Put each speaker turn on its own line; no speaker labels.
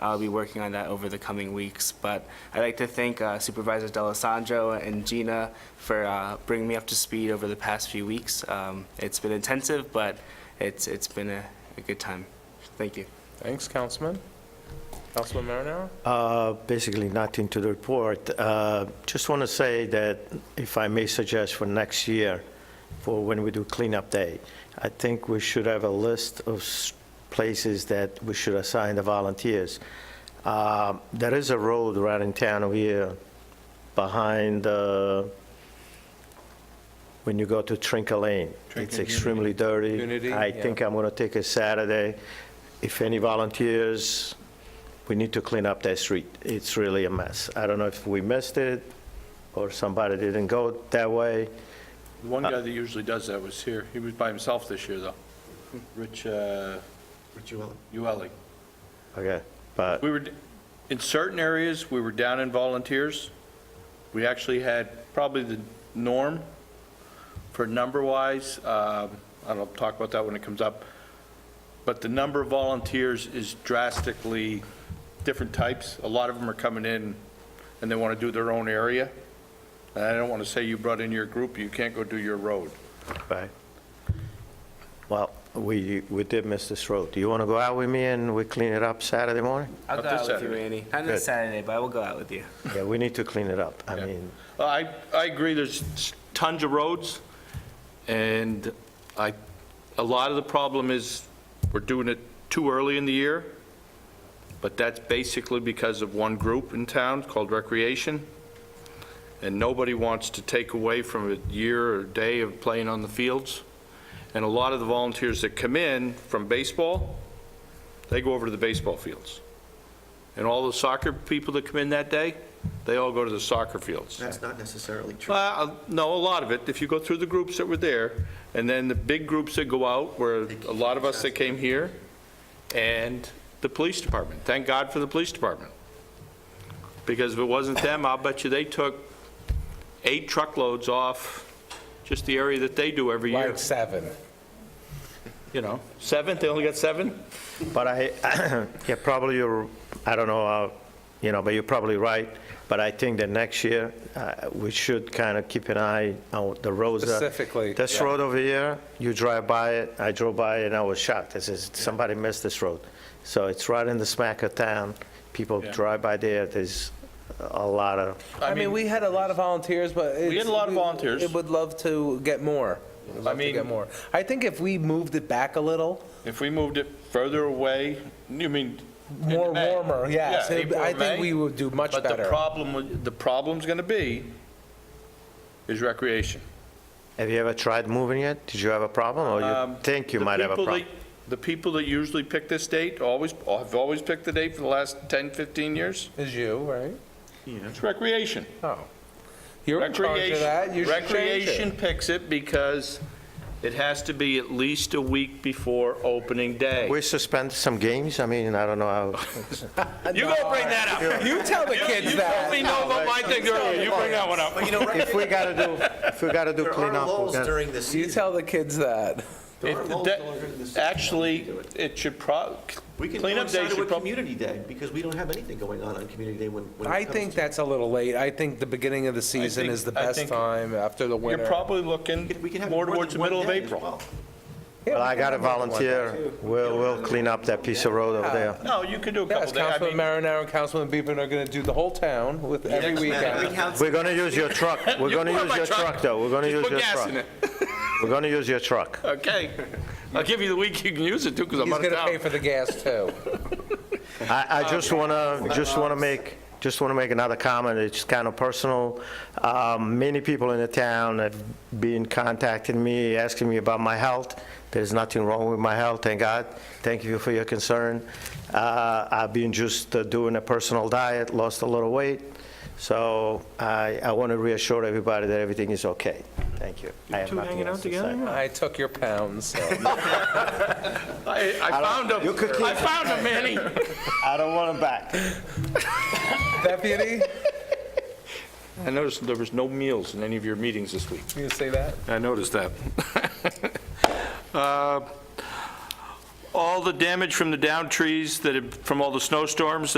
I'll be working on that over the coming weeks. But I'd like to thank uh, Supervisors D'Alessandro and Gina for uh, bringing me up to speed over the past few weeks. Um, It's been intensive, but it's, it's been a a good time. Thank you.
Thanks, Councilman. Councilman Marinaro?
Uh, Basically, nothing to the report. Uh, Just want to say that, if I may suggest for next year, for when we do cleanup day, I think we should have a list of s- places that we should assign the volunteers. Uh, There is a road right in town here behind, uh, when you go to Trinca Lane. It's extremely dirty.
Unity,
I
yeah.
think I'm going to take a Saturday. If any volunteers, we need to clean up that street. It's really a mess. I don't know if we missed it or somebody didn't go that way.
The one guy that usually does that was here. He was by himself this year, though. Rich, uh... Rich Ueli.
Okay, but,
We were, d- in certain areas, we were down in volunteers. We actually had probably the norm for number-wise. um, I don't know, talk about that when it comes up. But the number of volunteers is drastically different types. A lot of them are coming in and they want to do their own area. And I don't want to say you brought in your group, you can't go do your road.
right. Well, we, we did miss this road. Do you want to go out with me and we clean it up Saturday morning?
I'll
Not
go out
this
with you,
Saturday.
Randy. Not
Good.
this Saturday, but I will go out with you.
Yeah, we need to clean it up. I
Yeah.
mean,
Well, I, I agree, there's tons of roads, and I, a lot of the problem is we're doing it too early in the year, but that's basically because of one group in town called Recreation, and nobody wants to take away from a year or day of playing on the fields. And a lot of the volunteers that come in from baseball, they go over to the baseball fields. And all the soccer people that come in that day, they all go to the soccer fields.
That's not necessarily true.
Well, no, a lot of it, if you go through the groups that were there, and then the big groups that go out, where a lot of us that came here, and the police department. Thank God for the police department. Because if it wasn't them, I'll bet you they took eight truckloads off just the area that they do every year,
Like seven.
you know? Seven, they only got seven?
But I, yeah, probably you're, I don't know, how you know, but you're probably right. But I think that next year, uh, we should kind of keep an eye on the roads. that-
Specifically,
This
yeah.
road over here, you drive by it, I drove by it and I was shocked. I says, somebody missed this road. So it's right in the smack of town. People
Yeah.
drive by there, there's a lot of,
I mean, we had a lot of volunteers, but. We
had a lot of volunteers.
It would love to get more. Would love to
mean-
get more. I think if we moved it back a little,
If we moved it further away, you mean... into
more
May.
warmer, yes,
Yeah,
it-
April or
I think
May.
we would do much
But the
better.
problem, with- the problem's going to be is recreation.
have you ever tried moving it? Did you have a problem or you
Um,
think you
the
might have a
people
problem?
that- The people that usually pick this date always, have always picked the date for the last 10, 15 years.
Is you, right?
It's recreation.
Oh. You're in charge of
Recreation-
that, you should change
Recreation
it.
picks it because it has to be at least a week before opening day.
We suspended some games, I mean, I don't know how.
You gonna bring that up?
Uh, You tell the
You-
kids
You told
that.
me no about my thing earlier, you bring that one up.
But you know,
If we gotta do, if we gotta do
there are
cleanup. we
lulls
gotta-
during the
You
season.
tell the kids that.
There are
It-
lulls
that-
during the season.
Actually, it should prob,
We can
cleanup day
coincide it
should
with
probably.
Community Day, because we don't have anything going on on Community Day when, when it
I
comes
think
to-
that's a little late. I think the beginning of the season
think-
is the
I
best
think
time after the
You're
winter.
probably looking
We can have
more
than
towards the
one
middle of
day as
April.
well.
Yeah,
Well, I
we
got to
can have one.
volunteer. We'll, we'll clean up that piece of road over there.
No, you could do a couple
Yes,
days. I
Councilman
mean-
Marinaro and Councilman Beben are going to do the whole town with every
We
weekend.
have-
We're going to use your truck. We're
You
going to
bought
use
my
your truck, though. We're going to
Just
use
put
your
gas in
truck.
it.
We're going to use your truck.
Okay. I'll give you the week you can use it too, because I'm
He's
out
going
of
to pay
town.
for the gas too.
I,
Uh,
I just want to, just want to make, just want to make another comment. It's kind of personal. Um, Many people in the town have been contacting me, asking me about my health. There's nothing wrong with my health, thank God. Thank you for your concern. Uh, I've been just uh, doing a personal diet, lost a little weight. So I, I want to reassure everybody that everything is okay. Thank you. I have
two
nothing
hanging out
else to
together?
say.
I took your pounds. so.
I, I found him.
you could keep
I found him, Manny.
I don't want them back.
Deputy,
I noticed there was no meals in any of your meetings this week.
you say that?
I noticed that. Uh, All the damage from the down trees that, had- from all the snowstorms